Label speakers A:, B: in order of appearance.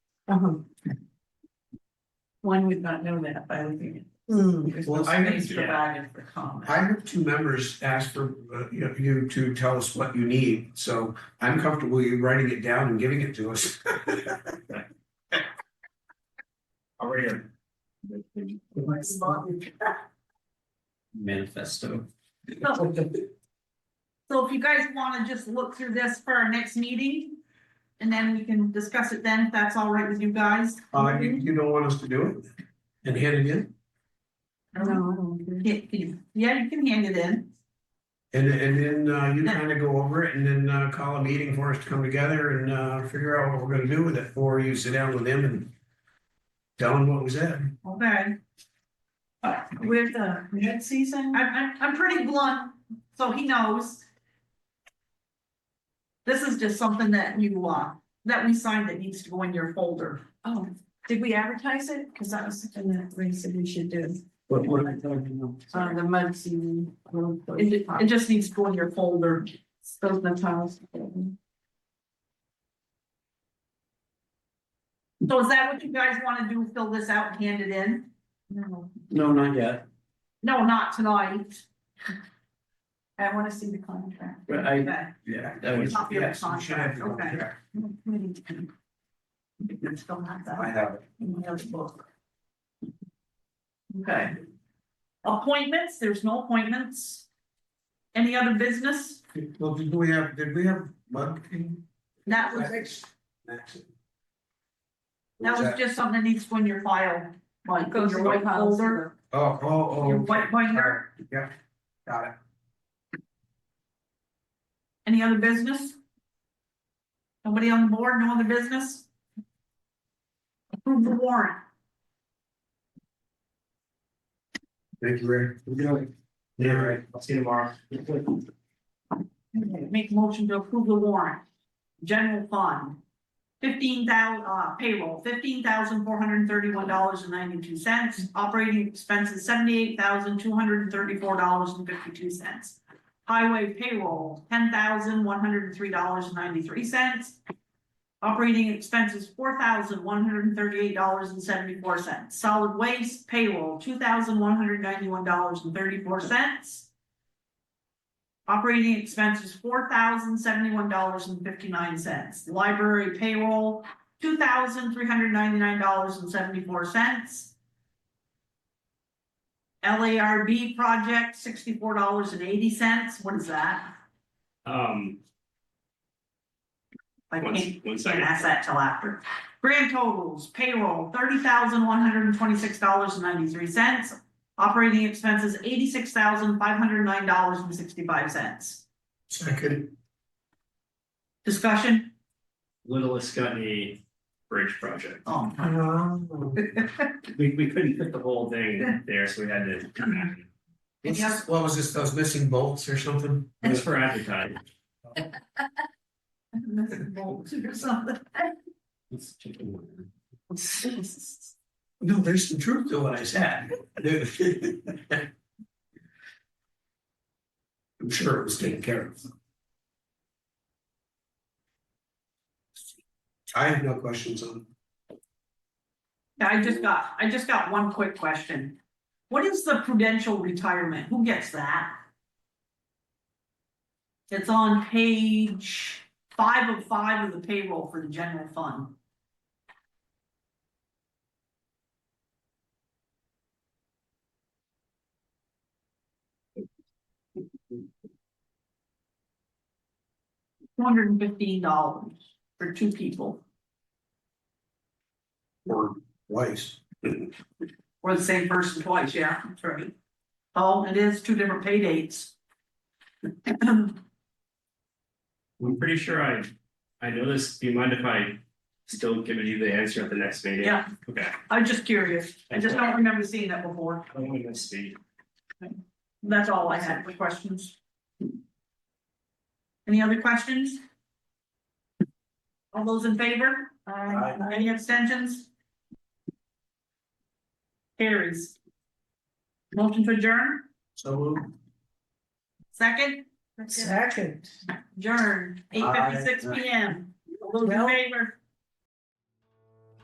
A: Um,
B: One would not know that by looking at.
A: Hmm.
B: There's no
C: Well, I
B: space
C: understand.
B: provided for comment.
C: I have two members ask for uh, you know, you to tell us what you need, so I'm comfortable you writing it down and giving it to us.
D: Already
E: manifesto.
B: So so if you guys wanna just look through this for our next meeting, and then we can discuss it then, if that's all right with you guys.
C: Uh, you, you don't want us to do it? And hand it in?
A: no, I don't care.
B: Yeah, you- Yeah, you can hand it in.
C: And, and then, uh, you kind of go over it and then, uh, call a meeting for us to come together and, uh, figure out what we're gonna do with it, or you sit down with them and tell them what was said.
B: Okay.
A: We're the mid season,
B: I'm, I'm, I'm pretty blunt, so he knows. This is just something that you, uh, that we signed that needs to go in your folder.
A: oh, did we advertise it? Cause that was something that Ray said we should do.
E: What, what are we talking about?
A: Uh, the mud season. um,
B: It, ju- it just needs to go in your folder.
A: Those Natals.
B: So is that what you guys wanna do, fill this out and hand it in?
A: No,
E: No, not yet,
B: No, not tonight.
A: I wanna see the contract.
E: but I,
B: Okay.
E: yeah, that was,
B: Copy of the
C: Yes, we should have the
B: contract, okay.
C: contract.
A: I still have
C: I
A: that
C: have it.
A: in my other book.
B: Okay. Appointments, there's no appointments. Any other business?
C: Well, did we have, did we have mud?
B: That was, that was just something that needs to go in your file, like in your white folder,
C: Oh, oh, oh.
B: your white binder.
C: Yeah, got it.
B: Any other business? Nobody on the board, no other business? Approve the warrant.
C: Thank you, Ray.
E: we're doing,
C: Yeah, right.
E: I'll see you tomorrow.
B: Okay, Make a motion to approve the warrant. General fund. Fifteen thousand uh, payroll, fifteen thousand four hundred and thirty-one dollars and ninety-two cents. Operating expenses, seventy-eight thousand two hundred and thirty-four dollars and fifty-two cents. Highway payroll, ten thousand one hundred and three dollars and ninety-three cents. Operating expenses, four thousand one hundred and thirty-eight dollars and seventy-four cents. Solid waste payroll, two thousand one hundred ninety-one dollars and thirty-four cents. Operating expenses, four thousand seventy-one dollars and fifty-nine cents. Library payroll, two thousand three hundred ninety-nine dollars and seventy-four cents. LARB project, sixty-four dollars and eighty cents. What is that?
D: Um,
B: I
D: one,
B: can't
D: one
B: can't
D: second.
B: ask that till after. Grand totals, payroll, thirty thousand one hundred and twenty-six dollars and ninety-three cents. Operating expenses, eighty-six thousand five hundred nine dollars and sixty-five cents.
C: Second,
B: Discussion?
D: Little Escutney Bridge Project.
B: Oh.
C: um,
D: We, we couldn't fit the whole thing there, so we had to.
C: what's this- what was this, those missing bolts or something?
D: It was for advertising.
B: Bolts or something.
E: Let's check the warrant.
C: No, there's some truth to what I said. I'm sure it was taken care of. I have no questions on.
B: Yeah, I just got, I just got one quick question. What is the prudential retirement? Who gets that? It's on page five of five of the payroll for the general fund. Two hundred and fifteen dollars for two people,
C: Or twice.
B: or the same person twice, yeah, that's right. Oh, it is two different pay dates.
D: I'm pretty sure I, I know this, do you mind if I still give you the answer at the next meeting?
B: Yeah.
D: Okay.
B: I'm just curious, I just don't remember seeing that before,
D: I don't want to misspeak.
B: that's all I had for questions. Any other questions? All those in favor?
A: Aye.
B: Any abstentions? Carries. Motion to adjourn,
C: So.
B: second,
A: Second.
B: adjourn, eight fifty-six P M, all those in favor?